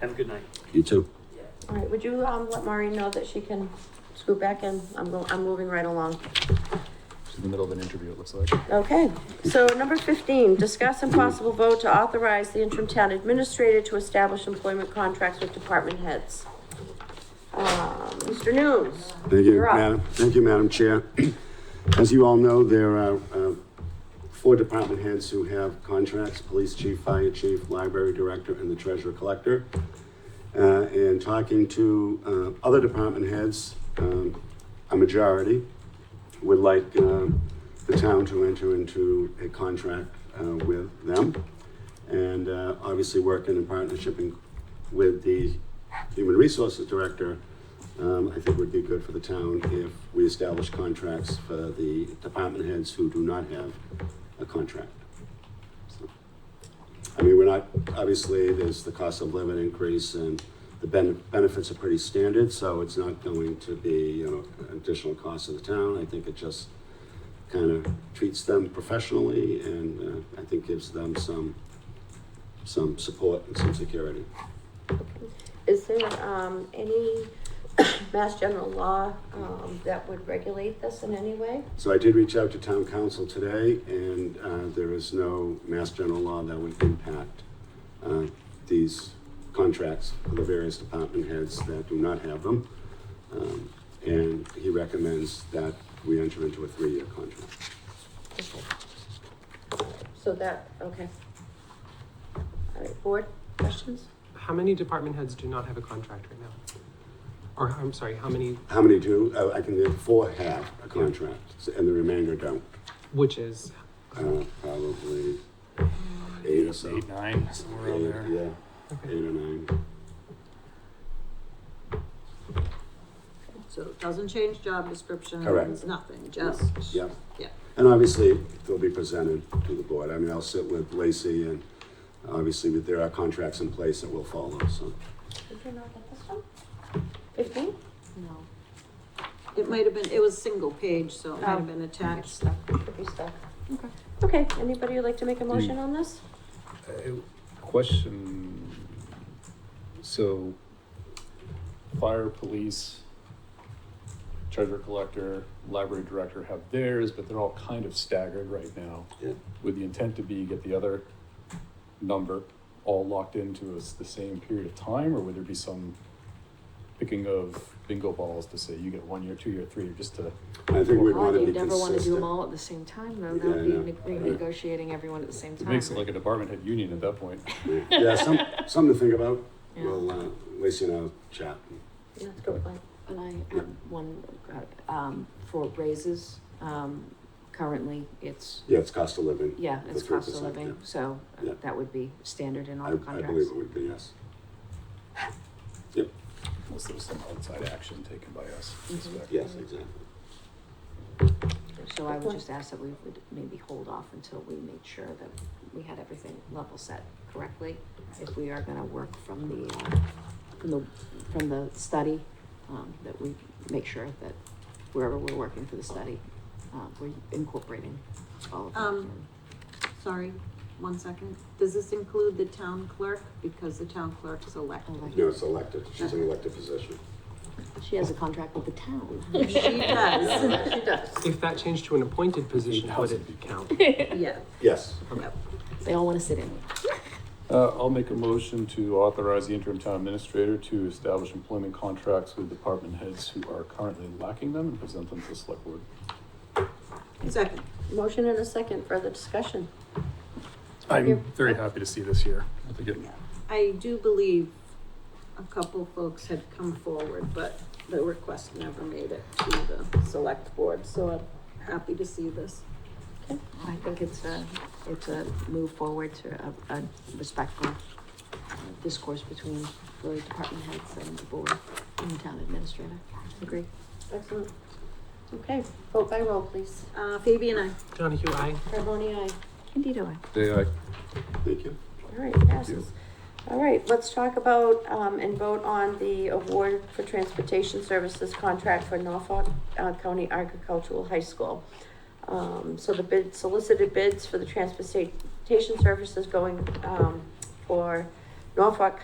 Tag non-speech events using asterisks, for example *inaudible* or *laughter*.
Have a good night. You too. All right, would you, um, let Maureen know that she can scoot back in? I'm go, I'm moving right along. She's in the middle of an interview, it looks like. Okay, so number fifteen, discuss and possible vote to authorize the interim town administrator to establish employment contracts with department heads. Um, Mr. News? Thank you, You're up. Madam, thank you, Madam Chair. As you all know, there are uh, four department heads who have contracts, police chief, fire chief, library director, and the treasurer collector. Uh, And talking to uh, other department heads, um, a majority would like um, the town to enter into a contract uh, with them. And uh, obviously, working in partnership in- with the human resources director, um, I think would be good for the town if we establish contracts for the department heads who do not have a contract. So, I mean, we're not, obviously, there's the cost of living increase and the ben- benefits are pretty standard, so it's not going to be, you know, an additional cost to the town. I think it just kind of treats them professionally and uh, I think gives them some, some support and some security. Is there, um, any *coughs* mass general law, um, that would regulate this in any way? So I did reach out to town council today, and uh, there is no mass general law that would impact uh, these contracts for the various department heads that do not have them. Um, And he recommends that we enter into a three-year contract. Okay. So that, okay. All right, board, questions? How many department heads do not have a contract right now? Or I'm sorry, how many, How many do? Uh, I can, there are four have a contract, so- and the remainder don't. which is, Uh, Probably eight or so. Eight, nine, somewhere around Eight, there. Yeah, okay, eight or nine. So it doesn't change job description. Correct. It's nothing, just. Yeah. Yeah. And obviously, they'll be presented to the board. I mean, I'll sit with Lacey and obviously that there are contracts in place that will follow, so. Did you not get this one? Fifteen? No. It might have been, it was single page, so it might Oh. have been attached. Could be stuck. Okay, anybody would like to make a motion on this? Uh, Question, so fire, police, treasurer collector, library director have theirs, but they're all kind of staggered right now. Yeah. With the intent to be, get the other number all locked into us the same period of time, or would there be some picking of bingo balls to say you get one year, two year, three, year, just to? I think we'd Well, want to be you'd never want to do them consistent. all at the same time, though. Yeah, That would I know. be ne- I know. negotiating everyone at the same It time. makes it like a department head union at that point. Yeah, some, something to think about. Yeah. We'll, uh, Lacey and I'll chat. Yeah, Let's go with mine. And I have one, uh, um, for raises, um, currently, it's, Yeah, it's cost of living. yeah, it's The cost of 3%, living, yeah. so uh, Yeah. that would be standard in I, all I believe contracts. it would be, yes. Unless there's some outside action taken by us. I suspect. Yes, exactly. So I would Okay. just ask that we would maybe hold off until we made sure that we had everything level set correctly. If we are gonna work from the, uh, from the, from the study, um, that we make sure that wherever we're working for the study, uh, we're incorporating all of that. Um, Sorry, one second. Does this include the town clerk? Because the town clerk's elected. Elected. No, it's elected. She's an elected position. She has a contract with the town. She does, She does. if that changed to an appointed position, would it count? yeah. Yes. Yep. They all wanna sit in. Uh, I'll make a motion to authorize the interim town administrator to establish employment contracts with department heads who are currently lacking them and present them to the select board. Second, Motion and a second, further discussion. I'm very happy to see this here. I think it I do believe a couple folks had come forward, but the request never made it to the select board, so I'm happy to see this. I think it's a, it's a move forward to a, a respectful uh, discourse between the department heads and the board and the town administrator. Agree. Excellent. Okay, vote by roll, please. Uh, Fabi and I. Donahue, aye. Carboni, aye. Indeed, I. Thank you. All right, passes. All right, let's talk about, um, and vote on the award for transportation services contract for Norfolk uh, County Agricultural High School. Um, so the bid, solicited bids for the transportation services going, um, for Norfolk